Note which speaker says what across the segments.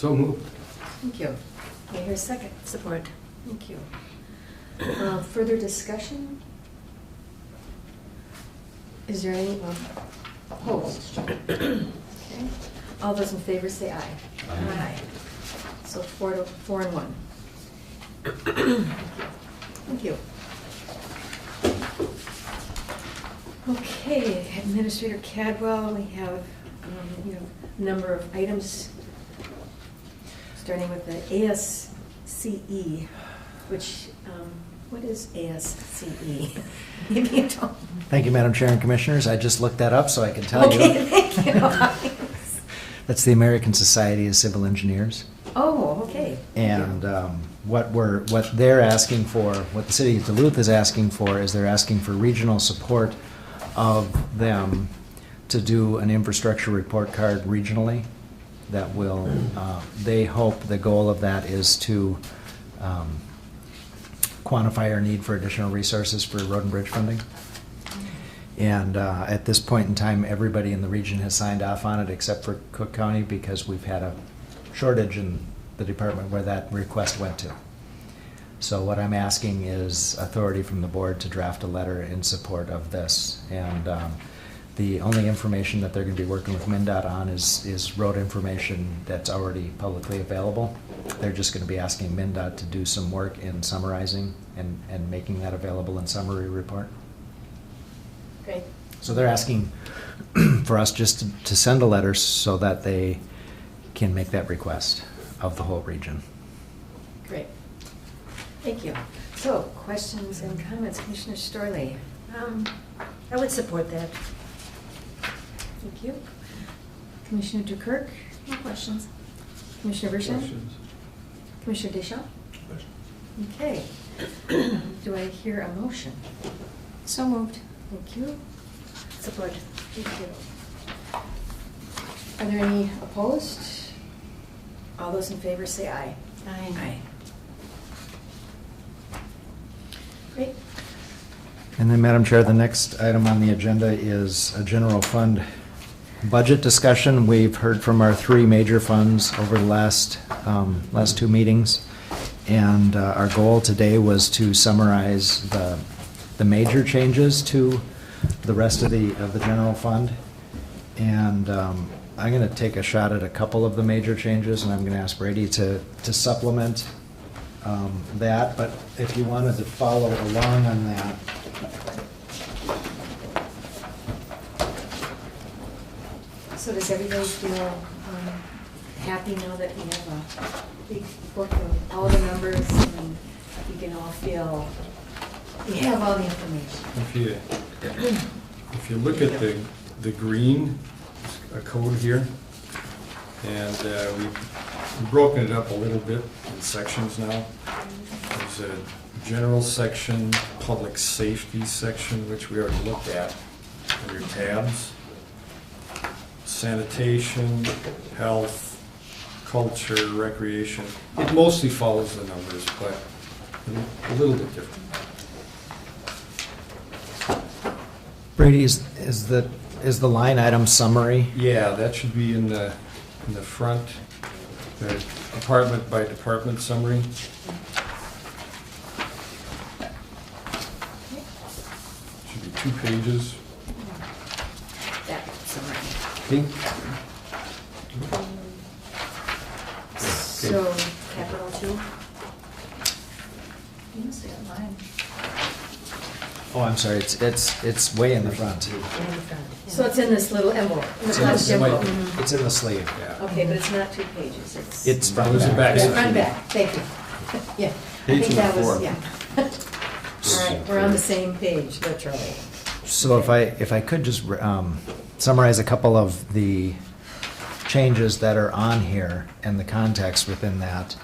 Speaker 1: So moved.
Speaker 2: Thank you. May I hear a second? Support. Thank you. Uh, Further discussion? Is there any um, opposed? Okay. All those in favor say aye.
Speaker 1: Aye.
Speaker 2: So four to, four and one. Thank you. Okay, Administrator Cadwell, we have, um, you know, a number of items Starting with the ASCE, E, which, um, what is ASCE? E? Maybe you don't.
Speaker 3: Thank you, Madam Chair and Commissioners. I just looked that up so I can tell you.
Speaker 2: Okay, thank you.
Speaker 3: That's the American Society of Civil Engineers.
Speaker 2: Oh, okay.
Speaker 3: And um, what we're, what they're asking for, what the city of Duluth is asking for, is they're asking for regional support of them to do an infrastructure report card regionally that will, uh, they hope the goal of that is to um, quantify our need for additional resources for road and bridge funding. And uh, at this point in time, everybody in the region has signed off on it except for Cook County because we've had a shortage in the department where that request went to. So what I'm asking is authority from the board to draft a letter in support of this. And um, the only information that they're going to be working with MinDOT on is, is road information that's already publicly available. They're just going to be asking MinDOT to do some work in summarizing and, and making that available in summary report.
Speaker 2: Great.
Speaker 3: So they're asking for us just to- to send a letter so that they can make that request of the whole region.
Speaker 2: Great. Thank you. So, questions and comments, Commissioner Storley?
Speaker 4: Um, I would support that.
Speaker 2: Thank you. Commissioner Dukirk?
Speaker 4: No questions.
Speaker 2: Commissioner Bershon?
Speaker 1: Questions?
Speaker 2: Commissioner Deschamps? Okay. Do I hear a motion?
Speaker 4: So moved.
Speaker 2: Thank you.
Speaker 4: Support.
Speaker 2: Thank you. Are there any opposed? All those in favor say aye. Great.
Speaker 3: And then, Madam Chair, the next item on the agenda is a general fund budget discussion. We've heard from our three major funds over the last, um, last two meetings. And uh, our goal today was to summarize the, the major changes to the rest of the, of the general fund. And um, I'm going to take a shot at a couple of the major changes, and I'm going to ask Brady to, to supplement um, that. But if you wanted to follow along on that.
Speaker 2: So does everybody feel um, happy now that we have a big book of all the numbers and we can all feel, we have all the information?
Speaker 1: If you, if you look at the, the green uh, code here, and uh, we've broken it up a little bit in sections now. There's a general section, public safety section, which we already looked at, in your tabs. Sanitation, health, culture, recreation. It mostly follows the numbers, but a little bit different.
Speaker 3: Brady, is, is the, is the line item summary?
Speaker 1: Yeah, that should be in the, in the front, the apartment by department summary. Should be two pages,
Speaker 2: That summary.
Speaker 1: pink.
Speaker 2: So capital two?
Speaker 4: You must have mine.
Speaker 3: Oh, I'm sorry, it's, it's, it's way in the front.
Speaker 2: So it's in this little envelope? Mm-hmm.
Speaker 1: It's
Speaker 3: in
Speaker 2: Not
Speaker 3: this
Speaker 2: envelope.
Speaker 1: white-
Speaker 3: It's in the sleeve.
Speaker 1: Yeah.
Speaker 2: Okay, but it's not two pages, it's.
Speaker 3: It's front
Speaker 1: Those are
Speaker 3: back.
Speaker 1: back.
Speaker 2: Yeah, front back, thank you. Yeah. I
Speaker 1: Page
Speaker 2: think that was-
Speaker 1: four.
Speaker 2: yeah. All right, we're on the same page, literally.
Speaker 3: So if I, if I could just um, summarize a couple of the changes that are on here and the context within that.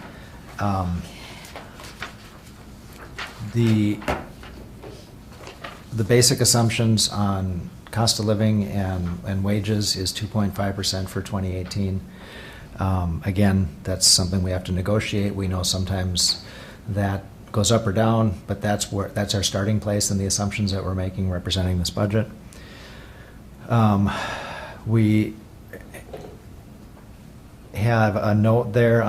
Speaker 3: Um, The, the basic assumptions on cost of living and, and wages is 2.5% for 2018. Um, Again, that's something we have to negotiate. We know sometimes that goes up or down, but that's where, that's our starting place and the assumptions that we're making representing this budget. Um, We have a note there